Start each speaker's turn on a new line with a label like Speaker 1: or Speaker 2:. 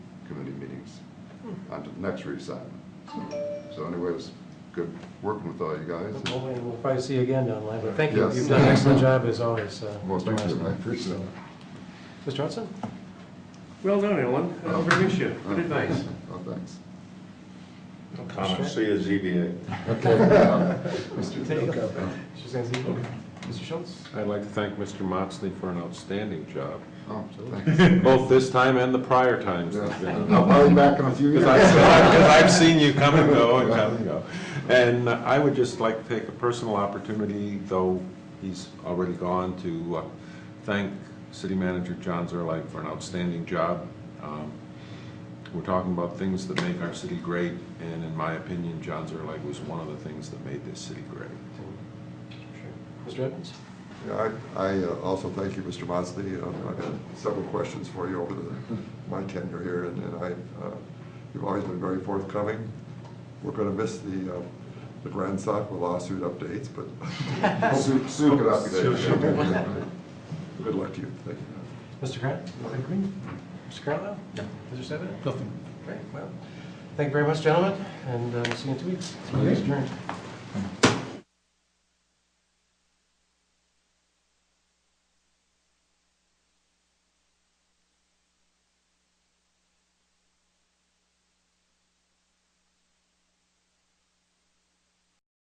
Speaker 1: on to the next reassignment. So anyways, good working with all you guys.
Speaker 2: Hopefully, We'll probably see you again down the line, but thank you.
Speaker 1: Yes.
Speaker 2: You've done an excellent job as always. uh,
Speaker 1: Well, thank you,
Speaker 2: Mr.
Speaker 1: I
Speaker 2: Johnson.
Speaker 1: appreciate it.
Speaker 2: Mr. Johnson?
Speaker 3: Well done, Ellen. I'll bring you shit. Put it nice.
Speaker 1: Oh, thanks.
Speaker 2: Comment.
Speaker 4: See you ZBA.
Speaker 1: Okay. Mr.
Speaker 2: She's gonna see you. Mr. Schultz?
Speaker 5: I'd like to thank Mr. Motsley for an outstanding job,
Speaker 1: Oh, thanks.
Speaker 5: both this time and the prior times. that I've been on.
Speaker 1: I'll call you back in a few years.
Speaker 5: Because I've, because I've seen you come and go and come and go. And I would just like to take a personal opportunity, though he's already gone, to uh, thank City Manager John Zerlike for an outstanding job. Um, We're talking about things that make our city great, and in my opinion, John Zerlike was one of the things that made this city great.
Speaker 2: Mr. Evans?
Speaker 1: Yeah, I, I uh, also thank you, Mr. Mosley. Uh, I've had several questions for you over the, my tenure here, and, and I, uh, you've always been very forthcoming. We're gonna miss the, uh, the Grand Sock lawsuit updates, but soon, soon could not be there. Good luck to you. Thank you.
Speaker 2: Mr. Grant? Mr. Green? Mr. Carlisle? No. Mr. Seven? Nothing. Great, well, thank you very much, gentlemen, and uh, see you in two weeks. Meeting adjourned.